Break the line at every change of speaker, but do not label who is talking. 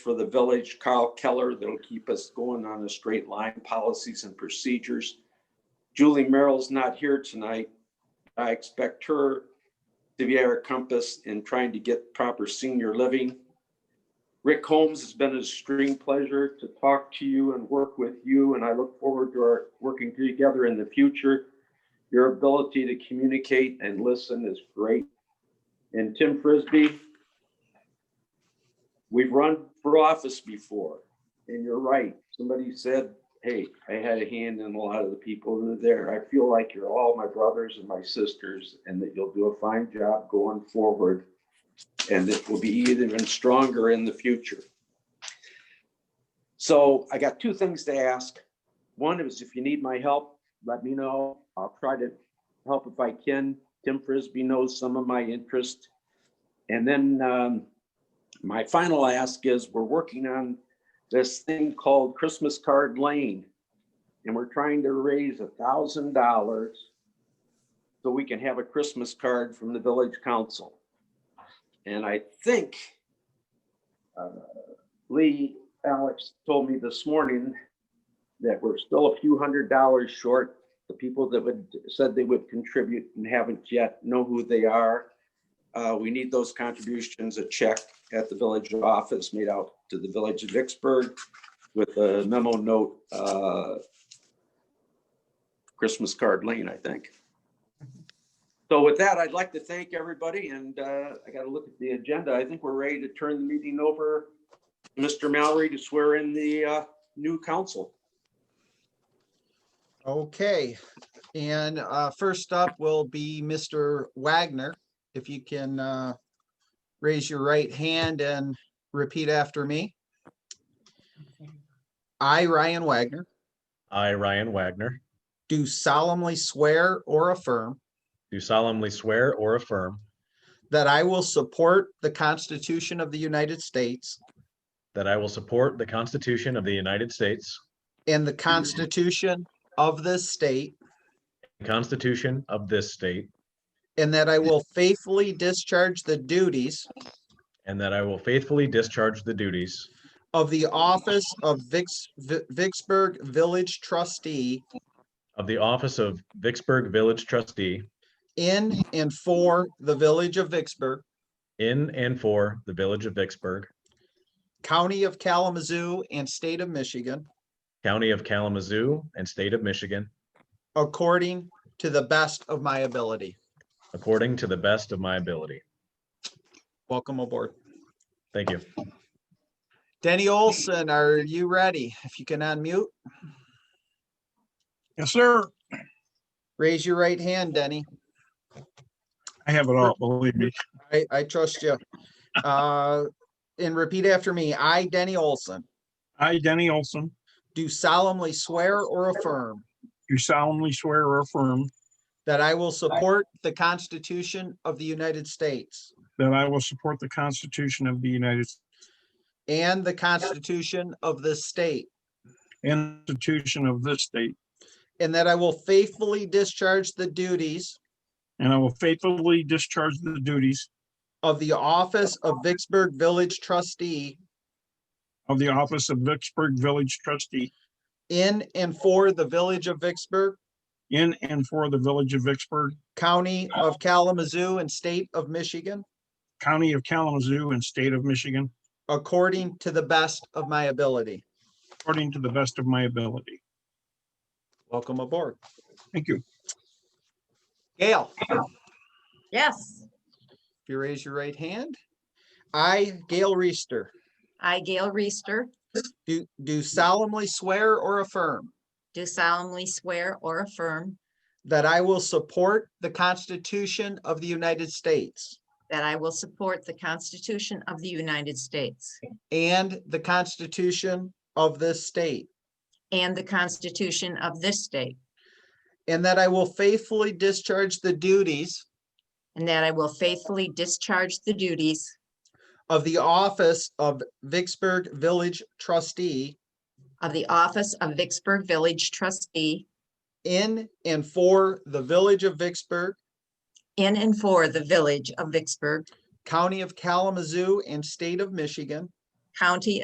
for the village, Carl Keller, that'll keep us going on a straight line, policies and procedures. Julie Merrill's not here tonight. I expect her to be our compass in trying to get proper senior living. Rick Holmes, it's been a extreme pleasure to talk to you and work with you, and I look forward to our working together in the future. Your ability to communicate and listen is great. And Tim Frisbee, we've run for office before, and you're right. Somebody said, hey, I had a hand in a lot of the people who are there. I feel like you're all my brothers and my sisters, and that you'll do a fine job going forward. And it will be even stronger in the future. So I got two things to ask. One is if you need my help, let me know. I'll try to help if I can. Tim Frisbee knows some of my interest. And then um, my final ask is, we're working on this thing called Christmas Card Lane. And we're trying to raise a thousand dollars so we can have a Christmas card from the village council. And I think uh, Lee, Alex told me this morning that we're still a few hundred dollars short. The people that would, said they would contribute and haven't yet know who they are. Uh, we need those contributions, a check at the village office made out to the village of Vicksburg with a memo note, uh, Christmas card lane, I think. So with that, I'd like to thank everybody and, uh, I gotta look at the agenda. I think we're ready to turn the meeting over. to Mr. Mallory to swear in the, uh, new council.
Okay, and uh, first up will be Mr. Wagner. If you can uh, raise your right hand and repeat after me. I, Ryan Wagner,
I, Ryan Wagner,
do solemnly swear or affirm
do solemnly swear or affirm
that I will support the Constitution of the United States
that I will support the Constitution of the United States,
and the Constitution of this state,
the Constitution of this state,
and that I will faithfully discharge the duties
and that I will faithfully discharge the duties
of the office of Vicks- Vi- Vicksburg Village Trustee
of the office of Vicksburg Village Trustee
in and for the Village of Vicksburg,
in and for the Village of Vicksburg,
County of Kalamazoo, and State of Michigan,
County of Kalamazoo, and State of Michigan,
according to the best of my ability.
according to the best of my ability.
Welcome aboard.
Thank you.
Denny Olson, are you ready? If you can unmute,
Yes, sir.
raise your right hand, Denny.
I have it all, believe me.
I, I trust you. Uh, And repeat after me. I, Denny Olson,
I, Denny Olson,
do solemnly swear or affirm
do solemnly swear or affirm
that I will support the Constitution of the United States
that I will support the Constitution of the United States
and the Constitution of this state,
and the Constitution of this state,
And that I will faithfully discharge the duties
and I will faithfully discharge the duties
of the office of Vicksburg Village Trustee
of the office of Vicksburg Village Trustee
in and for the Village of Vicksburg,
in and for the Village of Vicksburg,
County of Kalamazoo, and State of Michigan,
County of Kalamazoo, and State of Michigan,
according to the best of my ability.
according to the best of my ability.
Welcome aboard.
Thank you.
Gail, if
Yes,
you raise your right hand. I, Gail Reister,
I, Gail Reister,
do do solemnly swear or affirm
do solemnly swear or affirm
that I will support the Constitution of the United States
that I will support the Constitution of the United States
and the Constitution of this state,
and the Constitution of this state,
and that I will faithfully discharge the duties
and that I will faithfully discharge the duties
of the office of Vicksburg Village Trustee
of the office of Vicksburg Village trustee
in and for the Village of Vicksburg,
in and for the Village of Vicksburg,
County of Kalamazoo, and State of Michigan,
County